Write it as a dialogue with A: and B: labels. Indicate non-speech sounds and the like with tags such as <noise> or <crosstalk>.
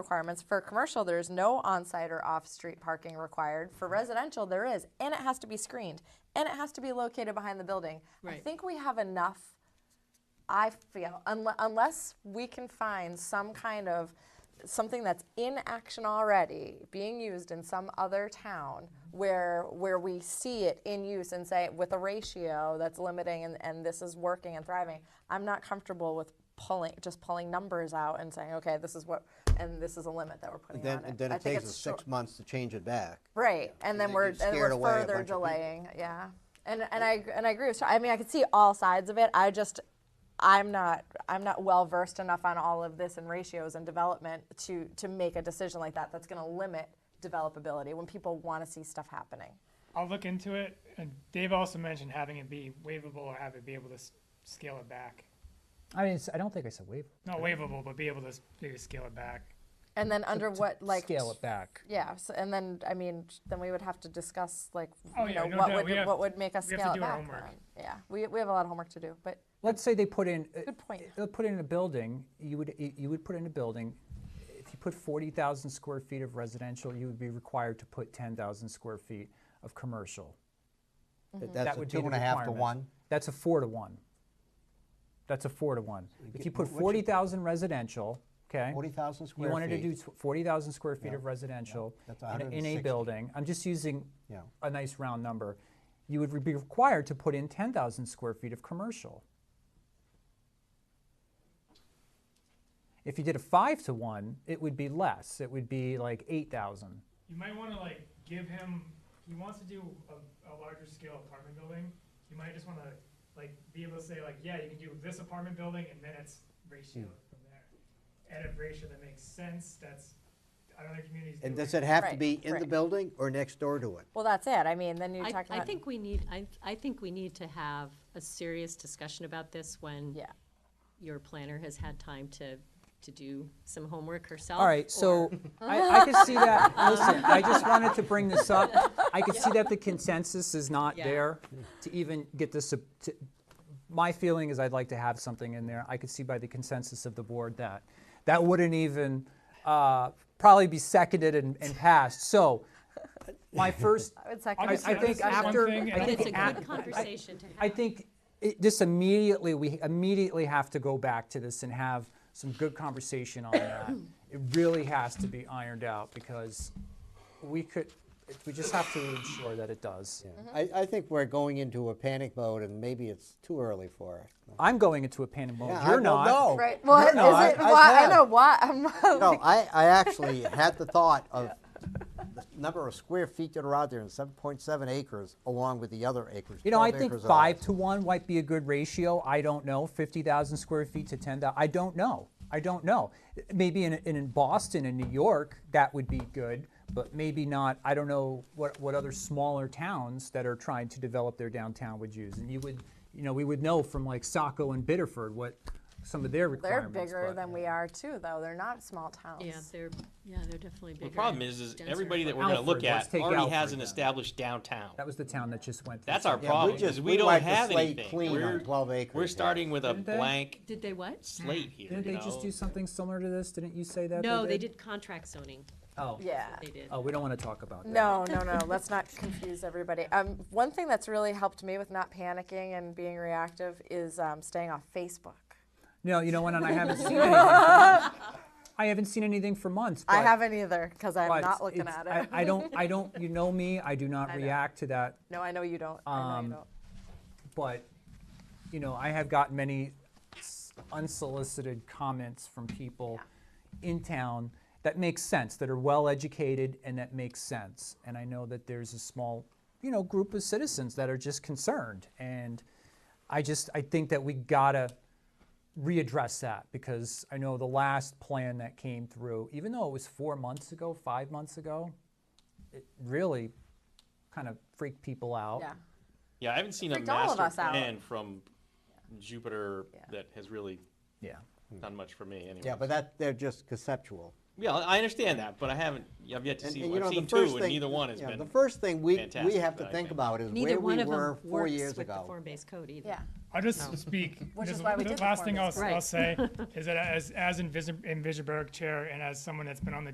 A: requirements. For commercial, there's no on-site or off-street parking required. For residential, there is, and it has to be screened, and it has to be located behind the building. I
B: Right.
A: think we have enough, I feel, unle- unless we can find some kind of, something that's in action already, being used in some other town, where, where we see it in use and say, with a ratio that's limiting and, and this is working and thriving, I'm not comfortable with pulling, just pulling numbers out and saying, okay, this is what, and this is a limit that we're putting on
C: Then,
A: it.
C: then
A: I
C: it
A: think
C: takes
A: it's
C: us
A: short- Mm-hmm.
C: six months to change it back.
A: Right, and then
C: then
A: we're
C: you've
A: and
C: scared
A: we're
C: away a bunch
A: further
C: of people.
A: delaying, yeah. And and I ag- and I agree with. Sha- I mean, I could see all sides of it. I just, I'm not I'm not well versed enough on all of this and ratios and development to to make a decision like that. That's going to limit developability when people want to see stuff happening.
D: I'll look into it. And Dave also mentioned having it be waivable or have it be able to s- scale it back.
E: I mean, it's, I don't think I said wave.
D: Not waivable, but be able to s- maybe scale it back.
A: And then under
E: to
A: what like
E: scale it back.
A: Yeah, so, and then I mean, then we would have to discuss like
D: Oh,
A: you
D: yeah,
A: know
D: no
A: what
D: doubt.
A: would
D: We have-
A: what would make us
D: we have to
A: scale it
D: do our
A: back.
D: homework.
A: then. Yeah, we we have a lot of homework to do, but
E: Let's say they put in.
A: Good point.
E: They put in a building. You would you you would put in a building. If you put forty thousand square feet of residential, you would be required to put ten thousand square feet of commercial.
C: That's
E: that
C: a
E: would
C: two
E: be the
C: and a half to
E: requirement.
C: one.
E: That's a four to one. That's a four to one. If you
C: get-
E: put
C: what- what you-
E: forty thousand residential, okay.
C: 40,000
E: You
C: square
E: wanted to do
C: feet.
E: tw- forty thousand square feet of residential
C: That's
E: in a- in a
C: 160.
E: building. I'm just using
C: Yeah.
E: a nice round number. You would be required to put in ten thousand square feet of commercial. If you did a five to one, it would be less. It would be like eight thousand.
D: You might want to like give him. He wants to do a, a larger scale apartment building. You might just want to like be able to say like, yeah, you can do this apartment building, and then it's ratio
C: Hmm.
D: from there. At a ratio that makes sense. That's I don't know communities.
C: And
D: do
C: does it have to
A: Right,
C: be in the
A: right.
C: building or next door to it?
A: well, that's it. I mean, then you're
B: I,
A: talking
B: I
A: about
B: think we need, I, I think we need to have a serious discussion about this when
A: yeah.
B: your planner has had time to, to do some homework herself.
E: All
D: <laughs>
E: right, so I, I could see that. Listen, I just wanted to bring this up. I could see that the consensus is not
B: Yeah.
E: there to even get this. ap- To, my feeling is I'd like to have something in there. I could see by the consensus of the board that that wouldn't even uh, probably be seconded and, and passed. So my first,
A: I would second.
D: I'll
E: I,
A: it.
D: just-
E: I
D: I'll
E: think
D: just say one
E: after,
D: thing,
E: I
D: and
B: But
E: think
B: it's a
E: after-
B: good conversation to have.
E: I think it, this immediately, we immediately have to go back to this and have some good conversation on that. It really has to be ironed out because we could, we just have to ensure that it does.
A: Mm-hmm.
C: I, I think we're going into a panic mode and maybe it's too early for it.
E: I'm going into a panic mode.
C: Yeah, I
E: Oh, You're
C: will
E: not.
C: know.
A: Right.
E: You're
A: Well, is
E: not.
A: it?
C: I- I
A: why, I
C: have.
A: know why. I'm <laughs> not
C: No, I, I actually had the thought of the number of square feet that are out there and 7.7 acres along with the other acres.
E: You know, I
C: 12
E: think
C: acres of
E: five
C: ours.
E: to one might be a good ratio. I don't know. 50,000 square feet to 10,000. I don't know. I don't know. Maybe in, in, in Boston and New York, that would be good, but maybe not. I don't know what, what other smaller towns that are trying to develop their downtown would use. And you would, you know, we would know from like Saco and Biddeford what some of their
A: They're
E: requirements.
A: bigger
E: but-
A: than we are too, though. They're not small towns.
B: Yeah, they're, yeah, they're definitely bigger.
F: The problem
B: and
F: is, is
B: denser.
F: everybody that we're gonna look
E: Alfred, let's
F: at
E: take
F: already
E: Alfred
F: has an
E: then.
F: established downtown.
E: That was the town that just went. through
F: That's our
E: something.
C: Yeah, we
F: problem,
C: just-
F: is
C: we
F: we don't
C: wiped the
F: have
C: slate
F: anything.
C: clean on
F: We're-
C: 12 acres
F: We're
C: here.
F: starting with a
E: Didn't they?
F: blank
B: Did they what?
F: slate here,
E: Didn't
F: you
E: they just
F: know?
E: do something similar to this? Didn't you say that?
B: No, they did contract zoning.
E: Oh.
A: Yeah.
B: They did.
E: Oh, we don't want to talk about that.
A: No, no, no. Let's not confuse everybody. Um, one thing that's really helped me with not panicking and being reactive is um, staying off Facebook.
E: No, you know what? And I haven't
A: <laughs>
E: seen anything. For months. I haven't seen anything for months.
A: I
E: but-
A: haven't either because I'm
E: but
A: not looking
E: it's-
A: at it.
E: I, I don't. I don't. You know me. I do
A: <laughs>
E: not
A: I know.
E: react to that.
A: <laughs> no, I know you don't. I know you
E: Um,
A: don't.
E: But you know, I have gotten many s- unsolicited comments from people in town that make sense, that are well educated, and that make sense. And I know that there's a small, you know, group of citizens that are just concerned. And I just, I think that we gotta readdress that because I know the last plan that came through, even though it was four months ago, five months ago, it really kind of freaked people out.
A: Yeah.
F: Yeah, I haven't seen a
A: Freaked all of
F: master
A: us out.
F: plan from Jupiter
A: Yeah.
F: that has really
E: Yeah.
F: done much for me anyway.
C: Yeah, but that, they're just conceptual.
F: Yeah, I understand that, but I haven't, I've yet to
C: And-
F: see,
C: and,
F: one.
C: you know,
F: I've
C: the
F: seen
C: first
F: two, and
C: thing-
F: neither one has
C: yeah,
F: been.
C: The first thing we, we
F: fantastic,
C: have to
F: but I
C: think
F: think-
C: about is
B: Neither
C: where
B: one
C: we
B: of them
C: were four years
B: works with the
C: ago.
B: form-based code either.
A: Yeah.
D: I'll just
B: No.
D: speak.
A: <laughs> Which
D: just
A: is why we
D: the
A: did the
D: last thing I'll,
A: form-based <laughs>
B: code.
D: I'll say is that as as Invis- Invisaberg chair and as someone that's been on the